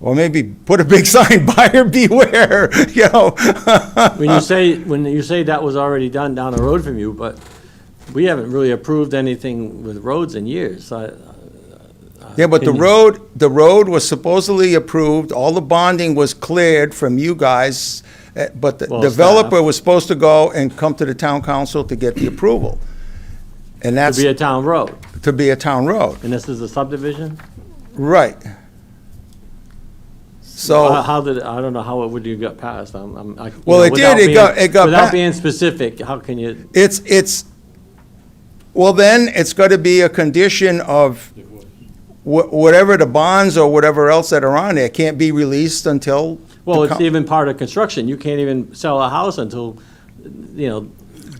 Or maybe put a big sign, buyer beware, you know? When you say, when you say that was already done down the road from you, but we haven't really approved anything with roads in years. I- Yeah, but the Opinion. road, the road was supposedly approved, all the bonding was cleared from you guys, eh, but the Well, developer staff. was supposed to go and come to the town council to get the approval. And It'd that's be a town road, to be a town road, and this is a subdivision? right. How- So, How did, I don't know, how it would you got passed? I'm- I'm- I- you Well, know, it did, without it being- got- it got pa- Without being specific, how can you, it's, it's, well, then, it's gotta be a condition of wha- whatever the bonds or whatever else that are on there can't be released until. the well, it's coun- even part of construction. You can't even sell a house until, you know,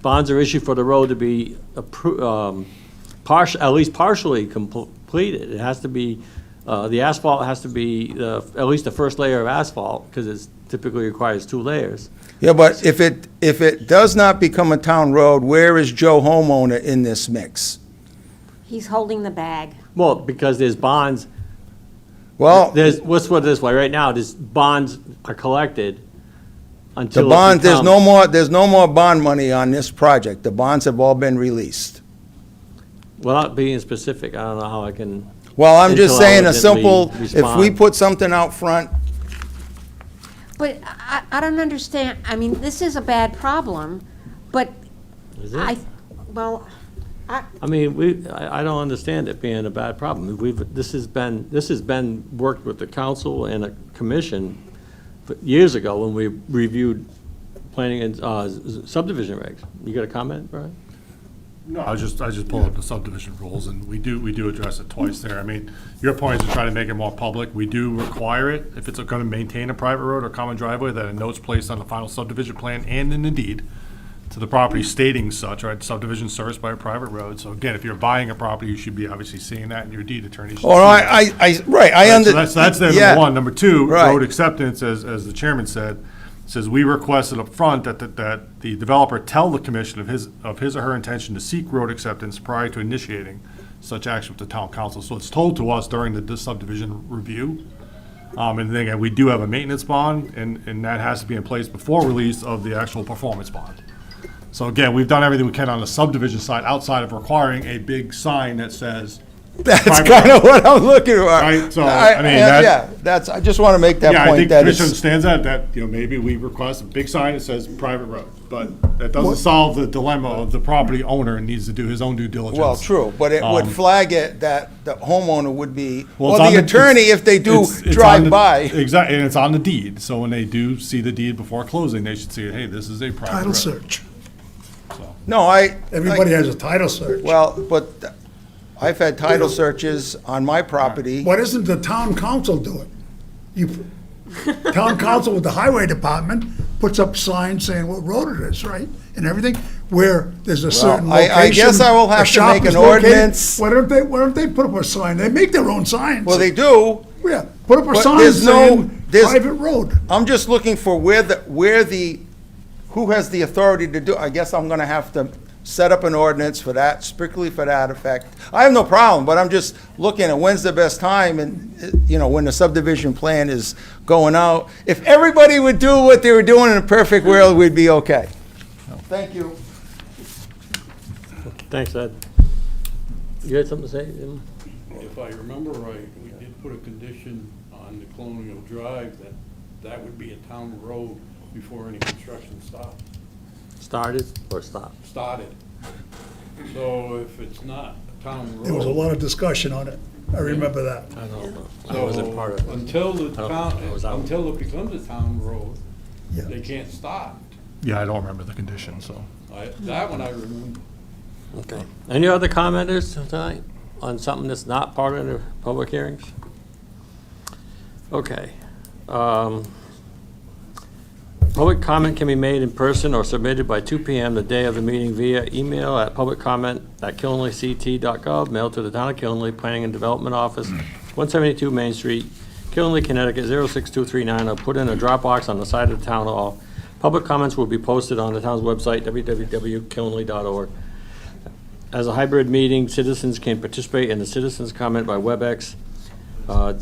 bonds are issued for the road to be appro, um, partial, at least partially completed. It has to be, uh, the asphalt has to be, uh, at least the first layer of asphalt, because it's typically requires two layers. Yeah, but if it, if it does not become a town road, where is Joe homeowner in this mix? He's holding the bag. Well, because there's bonds, Well, there's, let's put it this way, right now, there's bonds are collected the until. it bond, there's no becomes- more, there's no more bond money on this project. The bonds have all been released. Without being specific, I don't know how I can, Well, I'm just Until saying a elegantly simple, if we respond. put something out front, But I, I don't understand, I mean, this is a bad problem, but is I, it? well, I, I mean, we, I, I don't understand it being a bad problem. We've, this has been, this has been worked with the council and a commission for- years ago when we reviewed planning and uh, subdivision regs. You got a comment, Brian? No, I was just, I just pulled up the subdivision rules, and we do, we do address it twice there. I mean, your point is to try to make it more public. We do require it, if it's gonna maintain a private road or common driveway, that a note's placed on the final subdivision plan and in the deed to the property stating such, right, subdivision serviced by a private road. So again, if you're buying a property, you should be obviously seeing that, and your deed attorney should see or that. I, I, I- right, I Right, under. So that's, that's there, yeah. number one. Number two, Right. road acceptance, as, as the chairman said, says we requested upfront that, that, that the developer tell the commission of his, of his or her intention to seek road acceptance prior to initiating such action with the town council. So it's told to us during the subdivision review. Um, and then again, we do have a maintenance bond, and, and that has to be in place before release of the actual performance bond. So again, we've done everything we can on the subdivision side, outside of requiring a big sign that says. That's private kind road. of what I'm looking for. Right, so, I mean, yeah, that- Yeah, that's, I just want to make that Yeah, I point think that Commissioner it's, understands that, that, you know, maybe we request a big sign that says private road, but that doesn't solve the dilemma of the property owner and needs to do his own due diligence. well, true, but it would Um, flag it that the homeowner would be, Well, or it's on the attorney it's- if they do it's- it's on drive the- by. Exactly, and it's on the deed, so when they do see the deed before closing, they should see, hey, this is a private road. Title search. No, I. Everybody has a title search. Well, but th- I've had title searches on my property. Why doesn't the town council do it? You, town council with the highway department puts up signs saying what road it is, right? And everything, where there's a certain I- location. I guess I will a have to shop make is an located. ordinance. Why don't they, why don't they put up a sign? They make their own signs. Well, they do. Yeah, put up a But sign there's no- saying there's- private road. I'm just looking for where the, where the, who has the authority to do, I guess I'm gonna have to set up an ordinance for that, strictly for that effect. I have no problem, but I'm just looking at when's the best time and, uh, you know, when the subdivision plan is going out. If everybody would do what they were doing in a perfect world, we'd be okay. Thank you. Thanks, Ed. You had something to say? Jim? If I remember right, we did put a condition on the Colonial Drive that that would be a town road before any construction stopped, Started or stopped? started. So if it's not a town road. There was a lot of discussion on it. I remember that. I don't know. I so wasn't part of it. Until the I town, don't- I was out. until it becomes a town road, Yeah. they can't stop. Yeah, I don't remember the condition, so. I, that one I remember. Okay. Um, Any other commenters tonight on something that's not part of the public hearings? Okay. Um, Public comment can be made in person or submitted by 2 PM the day of the meeting via email at publiccomment@killenleyct.gov, mailed to the Town of Killenly Planning and Development Office, 172 Main Street, Killenly, Connecticut 06239, or put in a drop box on the side of the town hall. Public comments will be posted on the town's website, www.killenly.org. As a hybrid meeting, citizens can participate in the citizens' comment by WebEx. Uh,